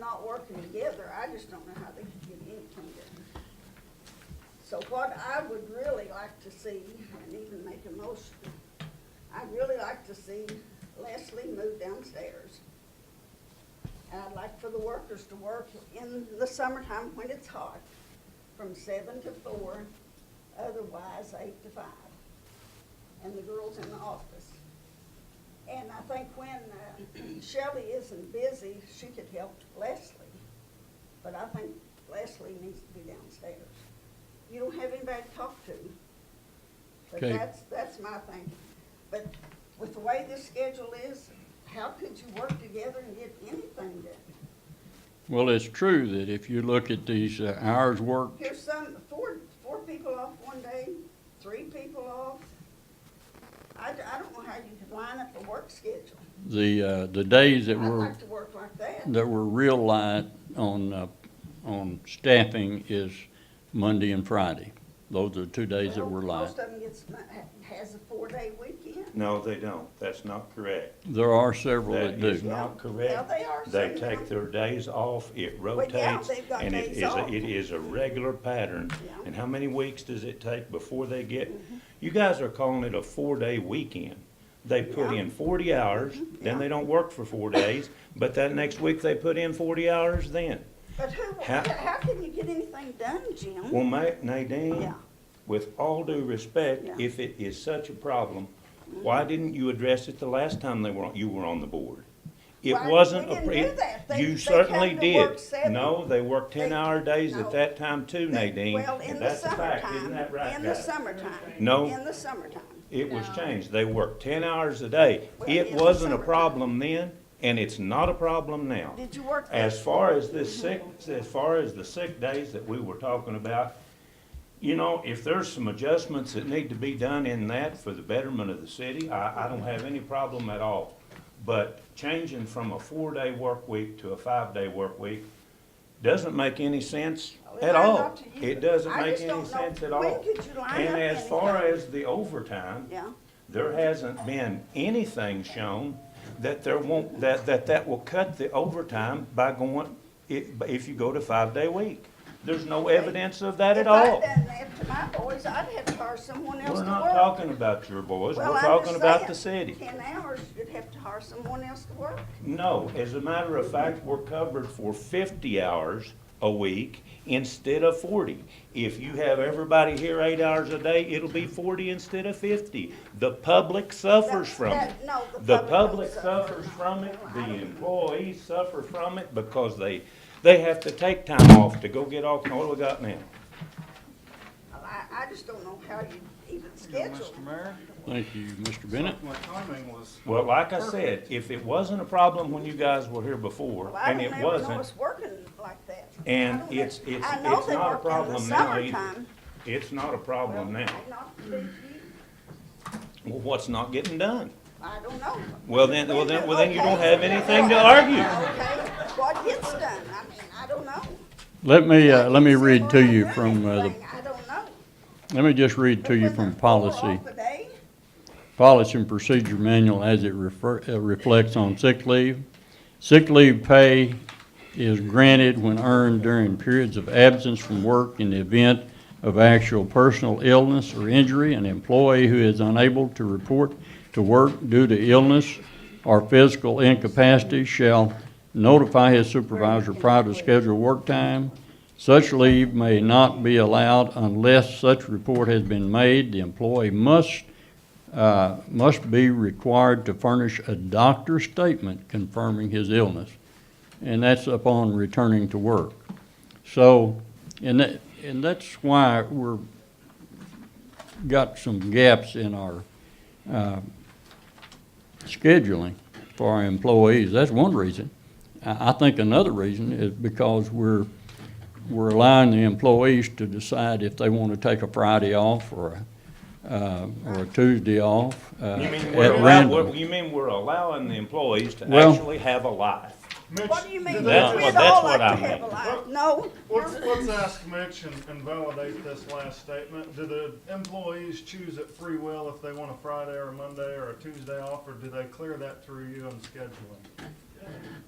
not working together, I just don't know how they could get anything done. So what I would really like to see, and even make a motion, I'd really like to see Leslie move downstairs. And I'd like for the workers to work in the summertime when it's hot, from seven to four, otherwise eight to five. And the girls in the office. And I think when uh, Shelley isn't busy, she could help Leslie. But I think Leslie needs to be downstairs. You don't have anybody to talk to. But Okay. that's, that's my thing. But with the way this schedule is, how could you work together and get anything done? Well, it's true that if you look at these uh, hours worked, Here's some, four, four people off one day, three people off. I, d- I don't know how you could line up a work schedule. the, uh, the days that I'd were, like to work like that. that were real light on, uh, on staffing is Monday and Friday. Those are two days that Well, were light. Most of them gets, mo- ha- has a four-day weekend. No, they don't. That's not correct. There are several That that is do. not Yeah, correct. they are. They some take of them. their days off, it rotates, they've got and it days is, a- off. it is a regular pattern. Yeah. Mm-hmm. And how many weeks does it take before they get? You guys are calling it a four-day weekend. They put Yeah. in forty hours, then they don't work for four days, but that next week they put in forty hours then. But who, How- how how can you get anything done, Jim? Well, Ma- Nadine, Yeah. with all due respect, Yeah. if it is such a problem, why didn't you address it the last time they were, on- you were on the board? It Why- we wasn't a. didn't pre- do that. They- You they certainly came to work did. seven. No, they worked They- ten-hour days no. at that time too, Nadine. Well, and in the that's a fact, summertime. Isn't that right, In the guys? summertime. No. In the summertime. It was changed. They worked ten hours a day. Well, It in the wasn't a summertime. problem then, and it's not a problem now. Did you work? Mm-hmm. the- As far as this sick, as far as the sick days that we were talking about, you know, if there's some adjustments that need to be done in that for the betterment of the city, I, I don't have any problem at all. But changing from a four-day work week to a five-day work week doesn't make any sense Well, at I'm all. Oh, not to you. It doesn't I make just any don't know sense at when all. could you line up And as far anything? as the overtime, Yeah. there hasn't been anything shown that there won't, that, that that will cut the overtime by going, if, if you go to five-day week. There's no evidence of that at all. If I'd done that to my boys, I'd have to hire someone else We're to work. not talking about your boys, Well, we're I'm talking just about the saying, city. Ten hours, you'd have to hire someone else to work. No, as a matter of fact, we're covered for fifty hours a week instead of forty. If you have everybody here eight hours a day, it'll be forty instead of fifty. The public suffers That- from that- it. no, the The public public don't suffer. suffers from it, I don't- the employees suffer from it because they, they have to take time off to go get off, what do we got now? I, I just don't know how you even schedule. Mr. Mayor, Thank you, Mr. Bennett. my timing was, Well, like I said, if it wasn't a problem when you guys were here before, Well, I and don't it ever know wasn't, it's working like that. I And don't it's- know. it's- I know it's they not a work in the problem now either. summertime. it's not a problem Well, now. may not be you. Well, what's not getting done? I don't know. Well, then, well, then, well, then you don't Okay. have anything to argue. Okay, what gets done? I mean, I don't know. Let me, I uh, let can't me say read we're to not you doing from, uh, the, anything. I don't know. let me just read to you When from they're four policy. off a day, Policy and Procedure Manual as it refer, uh, reflects on sick leave. Sick leave pay is granted when earned during periods of absence from work in the event of actual personal illness or injury. An employee who is unable to report to work due to illness or physical incapacity shall notify his supervisor prior to scheduled work time. Such leave may not be allowed unless such report has been made. The employee must uh, must be required to furnish a doctor's statement confirming his illness, and that's upon returning to work. So, and that, and that's why we're, got some gaps in our uh, scheduling for our employees. That's one reason. I, I think another reason is because we're, we're allowing the employees to decide if they want to take a Friday off or a uh, or a Tuesday off uh, You mean at we're allow- we're- random. You mean we're allowing the employees to Well- actually have a life? Mitch, what do you mean? did We they- That's all like what- that's what to I have a meant. life. No, let's, let's ask Mitch and, and validate this last statement. Do the employees choose at free will if they want a Friday or a Monday or a Tuesday off, or do they clear that through you on scheduling?